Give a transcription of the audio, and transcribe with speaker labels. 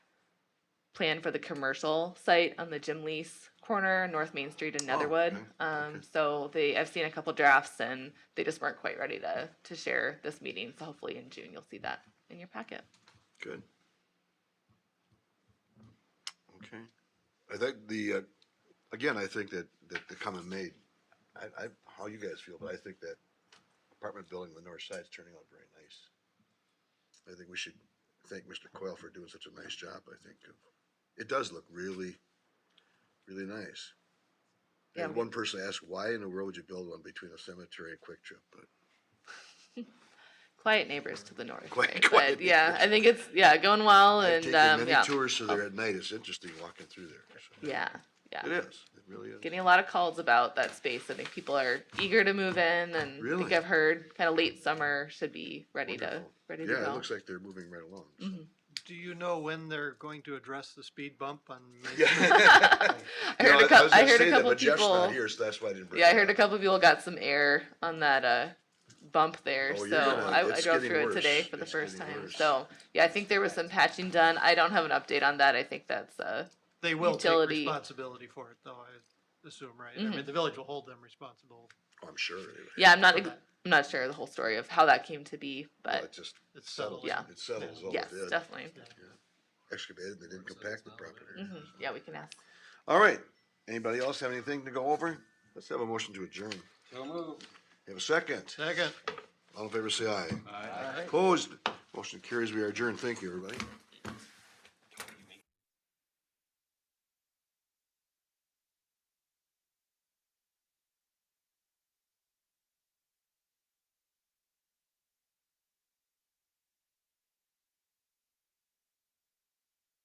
Speaker 1: planned for the commercial site on the gym lease corner, North Main Street in Netherwood.
Speaker 2: Oh, okay,
Speaker 1: Um,
Speaker 2: okay.
Speaker 1: so they, I've seen a couple drafts and they just weren't quite ready to, to share this meeting. So hopefully in June, you'll see that in your packet.
Speaker 2: Good. Okay. I think the, uh, again, I think that, that the comment made, I, I, how you guys feel, but I think that apartment building on the north side's turning out very nice. I think we should thank Mr. Coyle for doing such a nice job, I think. of- It does look really, really nice.
Speaker 1: Yeah,
Speaker 2: And
Speaker 1: we-
Speaker 2: one person asked, why in the world would you build one between a cemetery and Quick Trip? But
Speaker 1: Quiet neighbors to the north.
Speaker 2: Quite-
Speaker 1: right?
Speaker 2: quiet
Speaker 1: But yeah, I think it's, yeah, going well
Speaker 2: I've
Speaker 1: and,
Speaker 2: taken
Speaker 1: um,
Speaker 2: many
Speaker 1: yeah.
Speaker 2: tours to there at night. It's interesting walking through there. so.
Speaker 1: Yeah, yeah.
Speaker 2: It is. It really is.
Speaker 1: getting a lot of calls about that space. I think people are eager to move in, and I think
Speaker 2: Really?
Speaker 1: I've heard kind of late summer should be ready to
Speaker 2: Wonderful.
Speaker 1: ready to
Speaker 2: Yeah,
Speaker 1: go.
Speaker 2: it looks like they're moving right along. so.
Speaker 1: Mhm.
Speaker 3: Do you know when they're going to address the speed bump on Main Street?
Speaker 2: Yeah.
Speaker 1: I
Speaker 2: No,
Speaker 1: heard a
Speaker 2: was
Speaker 1: couple. I
Speaker 2: gonna
Speaker 1: heard
Speaker 2: say
Speaker 1: a
Speaker 2: that,
Speaker 1: couple
Speaker 2: but Jeff's
Speaker 1: people.
Speaker 2: not here, so that's why I didn't bring
Speaker 1: Yeah, I
Speaker 2: it
Speaker 1: heard a
Speaker 2: up.
Speaker 1: couple people got some air on that uh, bump there,
Speaker 2: Oh, you're
Speaker 1: so
Speaker 2: gonna-
Speaker 1: I, I
Speaker 2: it's
Speaker 1: drove
Speaker 2: getting
Speaker 1: through it today
Speaker 2: worse.
Speaker 1: for the
Speaker 2: It's
Speaker 1: first
Speaker 2: getting
Speaker 1: time.
Speaker 2: worse.
Speaker 1: So yeah, I think there was some patching done. I don't have an update on that. I think that's uh,
Speaker 3: They will take
Speaker 1: Utility.
Speaker 3: responsibility for it, though, I assume, right? I
Speaker 1: Mhm.
Speaker 3: mean, the village will hold them responsible.
Speaker 2: Oh, I'm sure. anyway.
Speaker 1: yeah. I'm not.
Speaker 3: for
Speaker 1: ex-
Speaker 3: that.
Speaker 1: I'm not sure the whole story of how that came to be,
Speaker 2: Well,
Speaker 1: but
Speaker 2: It just
Speaker 3: It's
Speaker 2: settles.
Speaker 3: settled.
Speaker 1: Yeah.
Speaker 2: It settles all
Speaker 1: Uh, yes,
Speaker 2: it did.
Speaker 1: definitely.
Speaker 2: Excavated, they didn't compact the property.
Speaker 1: hmm Yeah, we can ask.
Speaker 2: All right. Anybody else have anything to go over? Let's have a motion to adjourn.
Speaker 4: So moved.
Speaker 2: Have a second.
Speaker 3: Second.
Speaker 2: All in favor, say aye.
Speaker 4: Aye.
Speaker 2: Opposed? Motion carries. We are adjourned. Thank you, everybody.